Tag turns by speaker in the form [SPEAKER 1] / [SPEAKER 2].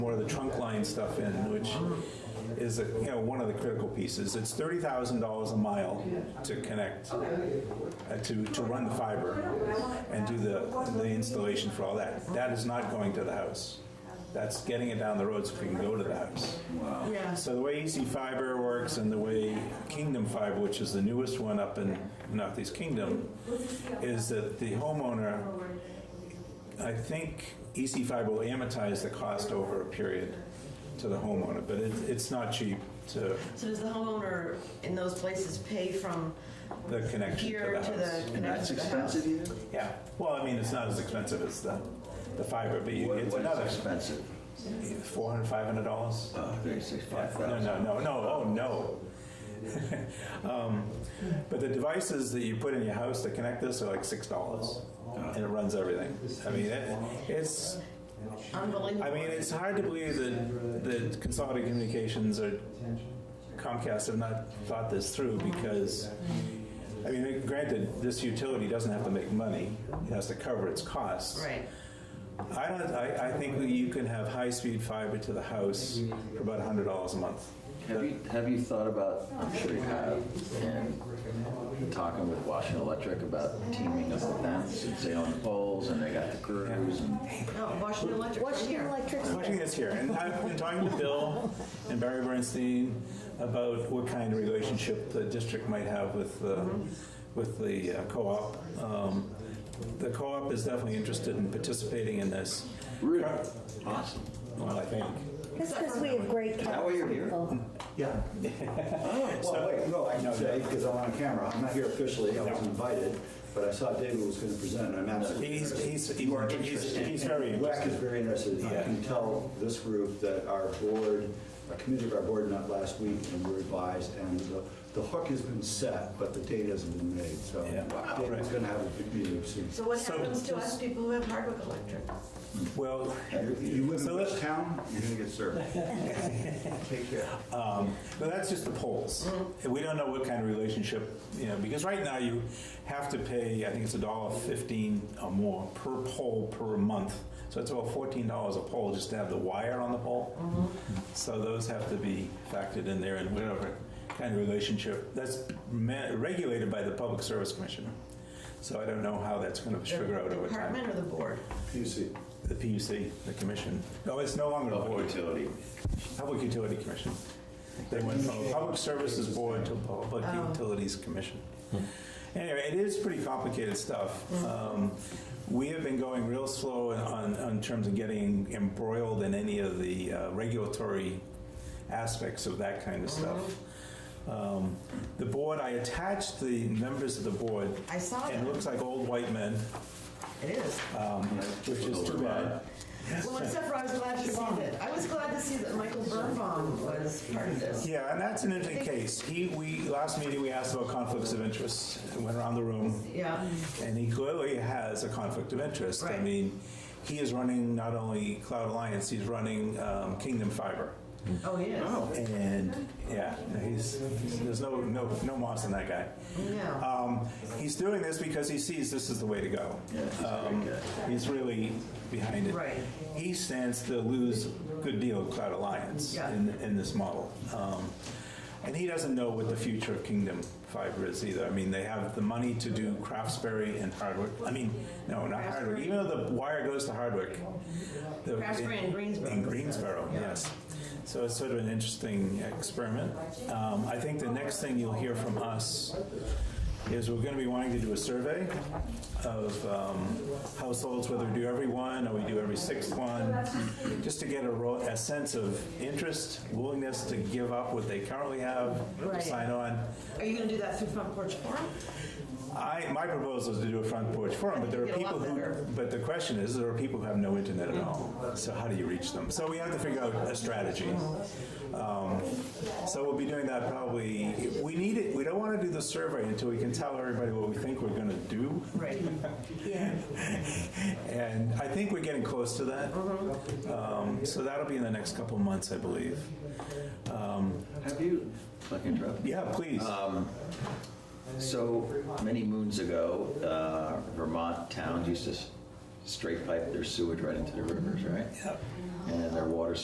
[SPEAKER 1] more of the trunk line stuff in, which is, a- you know, one of the critical pieces. It's thirty thousand dollars a mile to connect, uh, to, to run the fiber and do the, the installation for all that. That is not going to the house. That's getting it down the road so we can go to the house.
[SPEAKER 2] Yeah,
[SPEAKER 1] So the way EC Fiber works and the way Kingdom Fiber, which is the newest one up in Northeast Kingdom, is that the homeowner, I think EC Fiber will amortize the cost over a period to the homeowner, but it, it's not cheap to
[SPEAKER 2] so does the homeowner in those places pay from
[SPEAKER 1] the connection
[SPEAKER 2] here
[SPEAKER 1] to
[SPEAKER 2] to
[SPEAKER 1] the house.
[SPEAKER 2] the connection to
[SPEAKER 3] That's
[SPEAKER 2] the house?
[SPEAKER 3] expensive here?
[SPEAKER 1] Yeah, well, I mean, it's not as expensive as the, the fiber, but you-
[SPEAKER 3] What
[SPEAKER 1] it's
[SPEAKER 3] what
[SPEAKER 1] another
[SPEAKER 3] is expensive?
[SPEAKER 1] four hundred, five hundred dollars.
[SPEAKER 3] Oh, thirty-six, five
[SPEAKER 1] No,
[SPEAKER 3] thousand.
[SPEAKER 1] no, no, no, oh, no. Um, But the devices that you put in your house to connect this are like six dollars, and it runs everything. I mean, it- it's,
[SPEAKER 2] Unbelievable.
[SPEAKER 1] I mean, it's hard to believe that, that Consolidated Communications or Comcast have not thought this through, because, I mean, granted, this utility doesn't have to make money, it has to cover its costs.
[SPEAKER 2] Right,
[SPEAKER 1] I don't, I, I think you can have high-speed fiber to the house for about hundred dollars a month.
[SPEAKER 3] Have you, have you thought about, I'm sure you have, and talking with Washington Electric about teaming up with them since they own the poles and they got the crews and
[SPEAKER 2] no, Washington Electric, from
[SPEAKER 4] Washington
[SPEAKER 2] here.
[SPEAKER 4] Electric.
[SPEAKER 1] Watching this here, and I've been talking to Bill and Barry Bernstein about what kind of relationship the district might have with the, with the uh, co-op. Um, The co-op is definitely interested in participating in this.
[SPEAKER 3] really awesome.
[SPEAKER 1] Well, I think.
[SPEAKER 4] That's because we have great
[SPEAKER 3] that why you're here?
[SPEAKER 4] people.
[SPEAKER 5] Yeah. Well, wait, no, I can say, because I'm on camera, I'm not here officially, I was invited, but I saw David was going to present, and I'm absolutely.
[SPEAKER 1] He's,
[SPEAKER 5] interested.
[SPEAKER 1] he's, he's, he's very
[SPEAKER 5] WEC is
[SPEAKER 1] interested.
[SPEAKER 5] very interested, I
[SPEAKER 1] Yeah.
[SPEAKER 5] can tell this group that our board, a committee of our board met last week, and we're advised, and the, the hook has been set, but the date hasn't been made, so.
[SPEAKER 1] Yeah. Wow.
[SPEAKER 5] David's going to have a big meeting soon.
[SPEAKER 2] So what
[SPEAKER 1] So-
[SPEAKER 2] happens to us people who have Hardwick Electric?
[SPEAKER 1] Well,
[SPEAKER 5] You you live
[SPEAKER 1] So
[SPEAKER 5] in
[SPEAKER 1] let's-
[SPEAKER 5] this town, you're going to get served. Take care.
[SPEAKER 1] Um, But that's just the polls.
[SPEAKER 2] Mm-hmm.
[SPEAKER 1] And we don't know what kind of relationship, you know, because right now you have to pay, I think it's a dollar fifteen or more per poll per month. So it's about fourteen dollars a poll just to have the wire on the pole.
[SPEAKER 2] Mm-hmm.
[SPEAKER 1] So those have to be factored in there and whatever kind of relationship. That's ma- regulated by the Public Service Commission. So I don't know how that's going to
[SPEAKER 2] The
[SPEAKER 1] sugar out over
[SPEAKER 2] Department
[SPEAKER 1] time.
[SPEAKER 2] or the board?
[SPEAKER 5] PC.
[SPEAKER 1] The PUC, the commission. No, it's no longer a board.
[SPEAKER 3] utility.
[SPEAKER 1] Public Utility Commission. They went from a Public Services Board to a Public
[SPEAKER 2] Oh.
[SPEAKER 1] Utilities Commission. Anyway, it is pretty complicated stuff. Um, We have been going real slow on, on terms of getting embroiled in any of the uh, regulatory aspects of that kind of stuff. Um, The board, I attached the members of the board,
[SPEAKER 2] I saw
[SPEAKER 1] and it
[SPEAKER 2] that,
[SPEAKER 1] looks like old white men,
[SPEAKER 2] it is.
[SPEAKER 1] um, which is too bad.
[SPEAKER 2] Well, except for I was glad to see that, I was glad to see that Michael Birnbaum was part of this.
[SPEAKER 1] Yeah, and that's an interesting case. He, we, last meeting, we asked about conflicts of interest, and went around the room,
[SPEAKER 2] Yeah,
[SPEAKER 1] and he clearly has a conflict of interest. I
[SPEAKER 2] Right.
[SPEAKER 1] mean, he is running not only Cloud Alliance, he's running um, Kingdom Fiber.
[SPEAKER 2] oh, he is.
[SPEAKER 1] And, yeah, he's, there's no, no, no moss in that guy.
[SPEAKER 2] Yeah.
[SPEAKER 1] Um, He's doing this because he sees this is the way to go.
[SPEAKER 3] Yeah, he's a
[SPEAKER 1] Um,
[SPEAKER 3] great
[SPEAKER 1] He's really behind it.
[SPEAKER 2] Right.
[SPEAKER 1] He stands to lose a good deal of Cloud Alliance
[SPEAKER 2] Yeah.
[SPEAKER 1] in, in this model. Um, And he doesn't know what the future of Kingdom Fiber is either. I mean, they have the money to do Craftsberry and Hardwick. I mean, no, not Hardwick. Even though the wire goes to Hardwick. the-
[SPEAKER 2] Craftsberry and Greensboro.
[SPEAKER 1] In Greensboro, yes. So it's sort of an interesting experiment. Um, I think the next thing you'll hear from us is we're going to be wanting to do a survey of um, households, whether we do every one or we do every sixth one, just to get a, ro- a sense of interest, willingness to give up what they currently have,
[SPEAKER 2] Right.
[SPEAKER 1] sign on.
[SPEAKER 2] Are you gonna do that through Front Porch Forum?
[SPEAKER 1] I, my proposal is to do a front porch forum, but there are
[SPEAKER 2] Get a lot
[SPEAKER 1] people
[SPEAKER 2] better.
[SPEAKER 1] who, but the question is, there are people who have no internet at all. So how do you reach them? So we have to figure out a strategy. Um, So we'll be doing that probably, we need it, we don't want to do the survey until we can tell everybody what we think we're going to do.
[SPEAKER 2] Right,
[SPEAKER 4] Yeah.
[SPEAKER 1] And I think we're getting close to that.
[SPEAKER 2] Mm-hmm.
[SPEAKER 1] Um, So that'll be in the next couple of months, I believe. Um,
[SPEAKER 3] Have you, if I can interrupt?
[SPEAKER 1] Yeah, please.
[SPEAKER 3] So many moons ago, uh, Vermont towns used to s- straight pipe their sewage right into the rivers, right?
[SPEAKER 1] Yep.
[SPEAKER 3] And their water